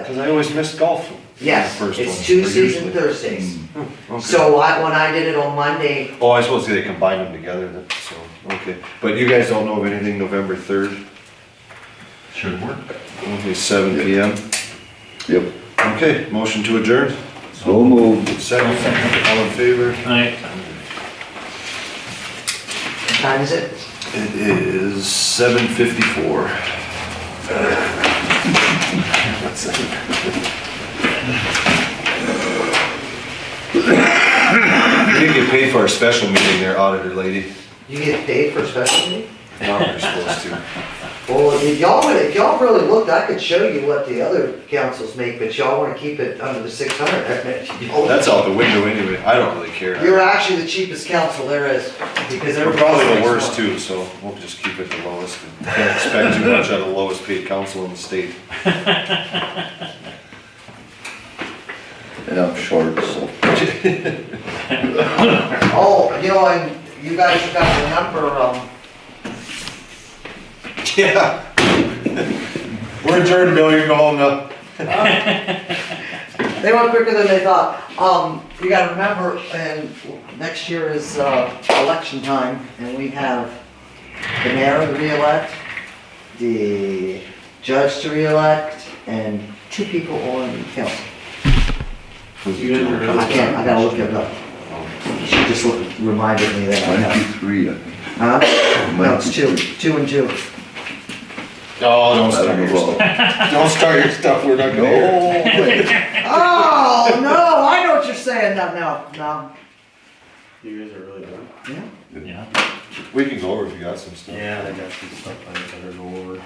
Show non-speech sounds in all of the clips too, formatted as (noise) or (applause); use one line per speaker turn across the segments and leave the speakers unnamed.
because I always missed golf.
Yes,
The first
it's
one, or
Tuesdays and
usually.
Thursdays.
Mm. Okay.
So I, when I did it on Monday,
Oh, I suppose they combined them together, then, so, okay. But you guys don't know of anything November third?
Should work.
Okay, seven P M.
Yep,
Okay, motion to adjourn,
so moved.
second, all in favor?
Alright.
what time is it?
It is seven fifty-four. We didn't get paid for our special meeting there, auditor lady.
You get paid for a special meeting?
Not we're supposed to.
Well, if y'all, would- if y'all really looked, I could show you what the other councils make, but y'all wanna keep it under the six hundred.
That's out the window anyway, I don't really care.
You're actually the cheapest council there is, because
We're
everybody's.
probably the
six
worst
months.
too, so we'll just keep it the lowest. and Can't expect too much out of the lowest paid council in the state.
And I'm short, so.
Oh, you know, and you guys have got the number, um,
(laughs) Yeah. We're adjourned, Bill, you're going now.
They went quicker than they thought. Um, you gotta remember, and next year is, uh, election time, and we have the mayor to reelect, the judge to reelect, and two people on the council. I can't, I gotta look it up. She just look- reminded me that I have.
Twenty-three, I think.
Huh? No, it's two, two and two.
Oh, don't
I
start
don't
your
know.
stuff. Don't start your stuff, we're not going
No, wait.
Oh, no, I know what you're saying, no, no, no.
You guys are really good.
Yeah.
Yeah.
We can go over if you got some stuff.
Yeah, they got some stuff I gotta go over.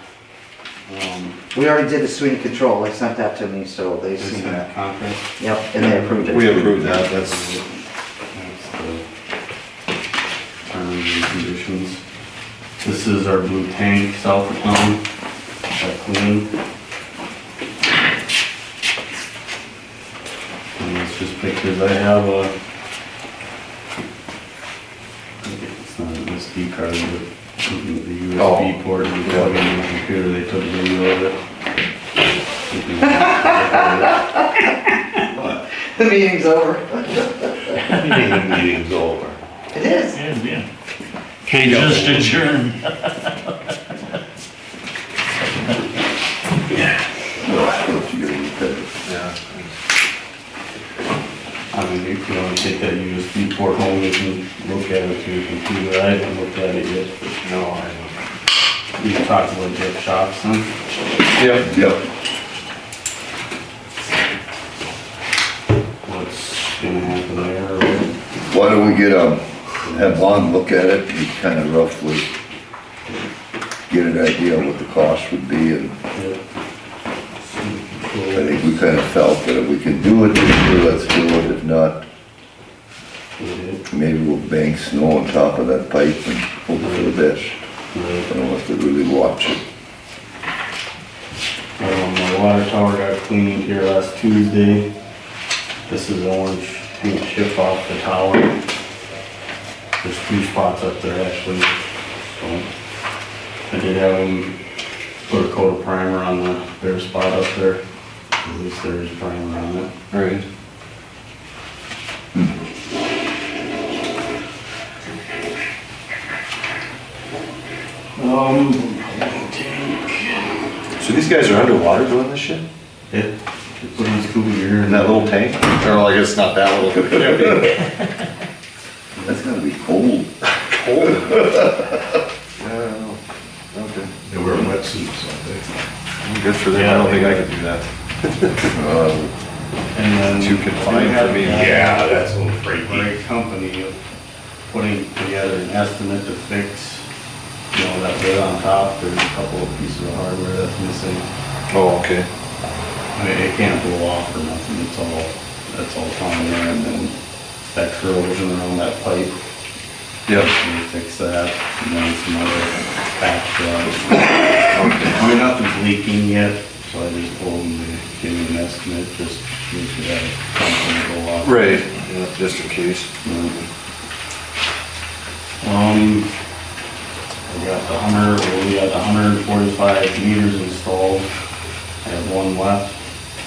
Um,
We already did the swing control, they sent that to me, so they
this
seen
is
that.
that conference.
Yep, and they approved it.
We approved that, that's,
That's the Terms and conditions. This is our blue tank south of town, that clean. And it's just pictures, I have a. It's not an SD card, but something with the
Oh.
USB port, and plug in the computer, they took video of it.
(laughs) The meeting's over.
(laughs) meeting's over.
It is.
Yeah, yeah. Okay, just adjourn.
You're repetitive.
Yeah.
I mean, you can only take that USB port home, you can look at it through your computer, I haven't looked at it yet.
No, I
We talked about Jeff Shopson,
don't. Yep.
Yep,
what's gonna happen there, or
why don't we get, um, have Lon look at it, and kind of roughly get an idea of what the cost would be, and I
what.
think we kind of felt that if we can do it this year, let's do it, if not, maybe we'll bank snow on top of that pipe and hope for the best. I don't have to really watch it.
Um, my water tower got cleaned here last Tuesday. This is the orange paint chip off the tower. There's two spots up there actually, so. I did have him put a coat of primer on the bare spot up there. At least there is primer on it.
All right.
Um,
So these guys are underwater doing this shit?
it, put in scuba gear
In
and
that little tank? Or like, it's not that little. (laughs)
That's gotta be cold.
Cold. Yeah, I don't know. Okay.
They wear wetsuits all day.
Good for them, I don't think I could do that.
Uh,
And then.
Too confined for me.
Yeah, that's a little freaky.
Great company of putting together an estimate to fix, you know, that bit on top, there's a couple of pieces of hardware that's missing.
Oh, okay.
I mean, it can't blow off or nothing, it's all, that's all on there, and then that corrosion around that pipe,
Yep.
we fix that, and then some other patch jobs. I mean, nothing's leaking yet, so I just told them to give me an estimate, just in case we had a company go off.
Right. Yeah, just in case.
Um, we got the hundred, well, we got the hundred and forty-five meters installed, I have one left.